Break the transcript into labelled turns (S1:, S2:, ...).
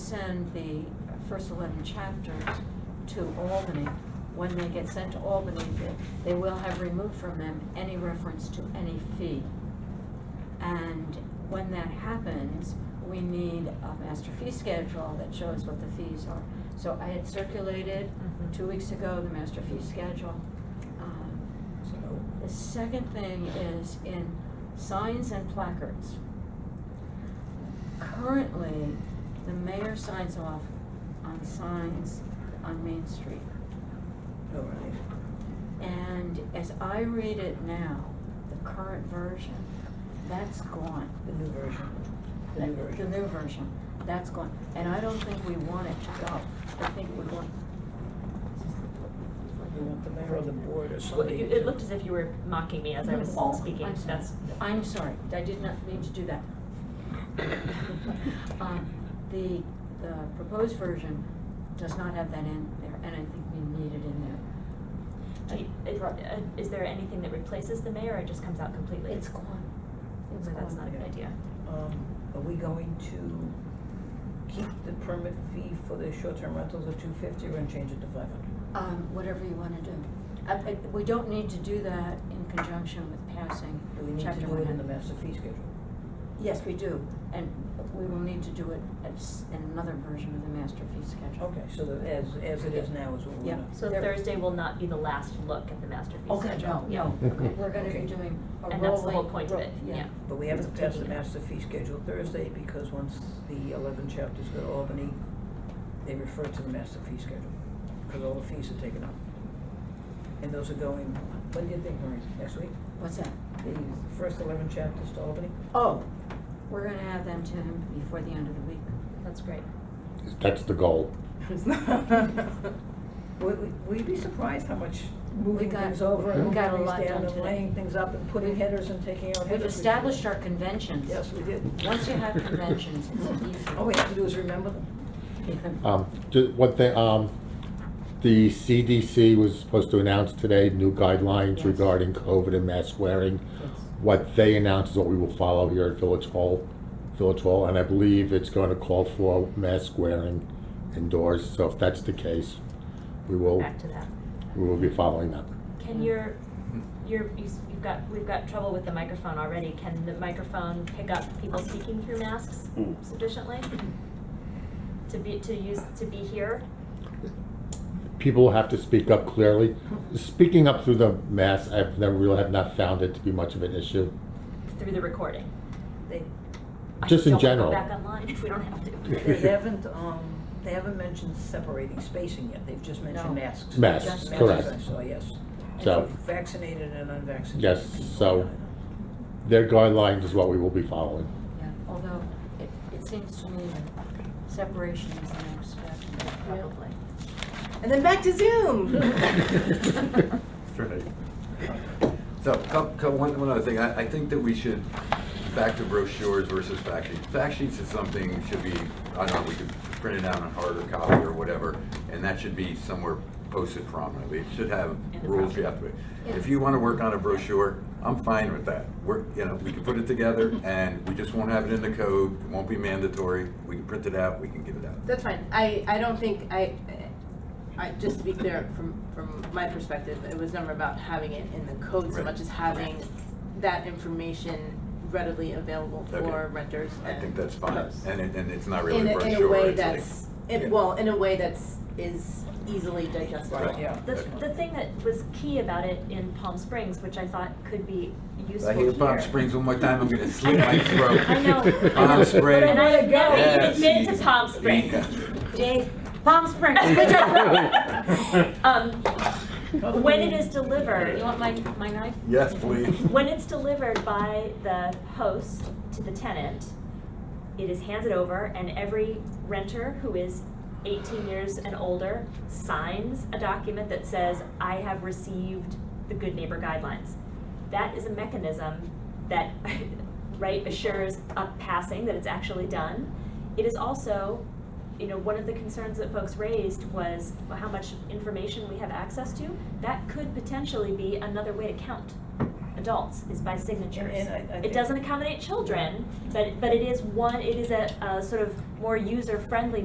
S1: send the first eleven chapters to Albany. When they get sent to Albany, they- they will have removed from them any reference to any fee. And when that happens, we need a master fee schedule that shows what the fees are. So I had circulated
S2: Mhm.
S1: two weeks ago the master fee schedule. Um, The second thing is in signs and placards. Currently, the mayor signs off on signs on Main Street.
S3: All Oh, right.
S1: And as I read it now, the current version, that's gone.
S3: The new version. The
S1: That-
S3: new version.
S1: The new version, that's gone, and I don't think we want it to go, I think we want.
S3: You want the mayor or the board or
S2: Well,
S3: somebody?
S2: you- It looked as if you were mocking me as I was
S1: Oh,
S2: speaking,
S1: I'm sorry.
S2: that's.
S1: I'm sorry, I did not mean to do that. Um, The, the proposed version does not have that in there, and I think we need it in
S2: Do you-
S1: there.
S2: it- uh, Is there anything that replaces the mayor or it just comes out completely?
S1: It's gone. It's
S2: No, That's
S1: gone.
S2: not a good idea.
S3: Yeah. Um, are we going to keep the permit fee for the short-term rentals at two fifty or and change it to five hundred?
S1: Um, whatever you wanna do. I, I, we don't need to do that in conjunction with passing
S3: Do we need to
S1: chapter
S3: do
S1: one
S3: it in
S1: hundred.
S3: the master fee schedule?
S1: Yes, we do, and we will need to do it as, in another version of the master fee schedule.
S3: Okay, so that as, as it is now is what we're
S1: Yeah.
S3: gonna.
S2: So
S1: There-
S2: Thursday will not be the last look at the master fee schedule? Yeah.
S1: No, no,
S4: Okay.
S1: we're gonna be
S3: Okay.
S1: doing a rolling.
S2: And that's the whole point of
S1: ro-
S2: it, yeah.
S3: But we have to pass the
S2: Taking it.
S3: master fee schedule Thursday because once the eleven chapters go to Albany, they refer to the master fee schedule, because all the fees are taken up. And those are going, when do you think, Maureen, next week?
S1: What's that?
S3: The first eleven chapters to Albany?
S1: Oh, we're gonna have them to him before the end of the week.
S2: That's great.
S4: That's the goal.
S3: Would, would- would you be surprised how much moving
S1: got-
S3: things over
S4: we
S3: and moving
S1: got a
S3: things
S1: lot done
S3: down and
S1: today.
S3: laying things up and putting headers and taking out headers?
S1: We've established our conventions.
S3: Yes, Oh, we did.
S1: Once you have conventions, it's easy.
S3: All we have to do is remember them.
S4: Um, ju- one thing, um, the CDC was supposed to announce today new guidelines
S1: Yes.
S4: regarding COVID and mask wearing. What they announced is what we will follow here at Village Hall, Village Hall, and I believe it's going to call for mask wearing indoors. So if that's the case, we will,
S2: Back to that.
S4: we will be following that.
S2: Can your, your, you s- you've got, we've got trouble with the microphone already. Can the microphone pick up people speaking through masks sufficiently? To be, to use, to be here?
S4: People have to speak up clearly. Speaking up through the mask, I've never really have not found it to be much of an issue.
S2: through the recording.
S3: They,
S2: I
S4: Just in
S2: don't wanna
S4: general.
S2: go back online if we don't have to.
S3: They haven't, um, they haven't mentioned separating spacing yet, they've just mentioned
S1: No.
S3: masks.
S4: Masks,
S3: Just
S4: correct.
S3: I saw, yes. And
S4: So-
S3: for Vaccinated and unvaccinated.
S4: Yes,
S3: people,
S4: so-
S3: yeah, I know.
S4: Their guidelines is what we will be following.
S1: Yeah, although it, it seems to me that separation is the next step.
S2: Probably.
S5: And then back to Zoom.
S6: Right. So, co- co- one, one other thing, I, I think that we should, back to brochures versus fact sheets. Fact sheets is something should be, I don't know, we could print it out on harder copy or whatever, and that should be somewhere posted prominently. It should have
S2: In the
S6: rules you
S2: brochure.
S6: have to, if you wanna work on a brochure, I'm fine with that. We're, you know, we can put it together, and we just won't have it in the code, it won't be mandatory, we can print it out, we can give it out.
S5: That's fine. I, I don't think, I, I, just to be clear, from, from my perspective, it was never about having it in the code so
S6: Right.
S5: much as having that information readily available for
S6: Okay.
S5: renters
S6: I
S5: and.
S6: think that's fine,
S5: hosts.
S6: and it, and it's not really
S5: In
S6: a
S5: a,
S6: brochure.
S5: in a way
S6: it's like-
S5: that's,
S6: yeah.
S5: it, well, in a way that's, is easily digestible.
S6: Right.
S3: Yeah.
S2: The, the thing that was key about it in Palm Springs, which I thought could be useful
S6: I
S2: here.
S6: hear Palm Springs one more time, I'm gonna slit my throat.
S2: I know.
S6: Palm Springs.
S2: And I've never
S6: Yes.
S2: even been to Palm Springs.
S6: Yeah.
S2: Dave,
S1: Palm Springs, good job.
S2: um, when it is delivered,
S1: You want my, my knife?
S6: Yes, please.
S2: when it's delivered by the host to the tenant, it is handed over and every renter who is eighteen years and older signs a document that says, I have received the good neighbor guidelines. That is a mechanism that, right, assures up passing that it's actually done. It is also, you know, one of the concerns that folks raised was how much information we have access to. That could potentially be another way to count adults is by signatures.
S3: And- and I- I
S2: It
S3: think-
S2: doesn't accommodate children, but, but it is one, it is a, a sort of more user-friendly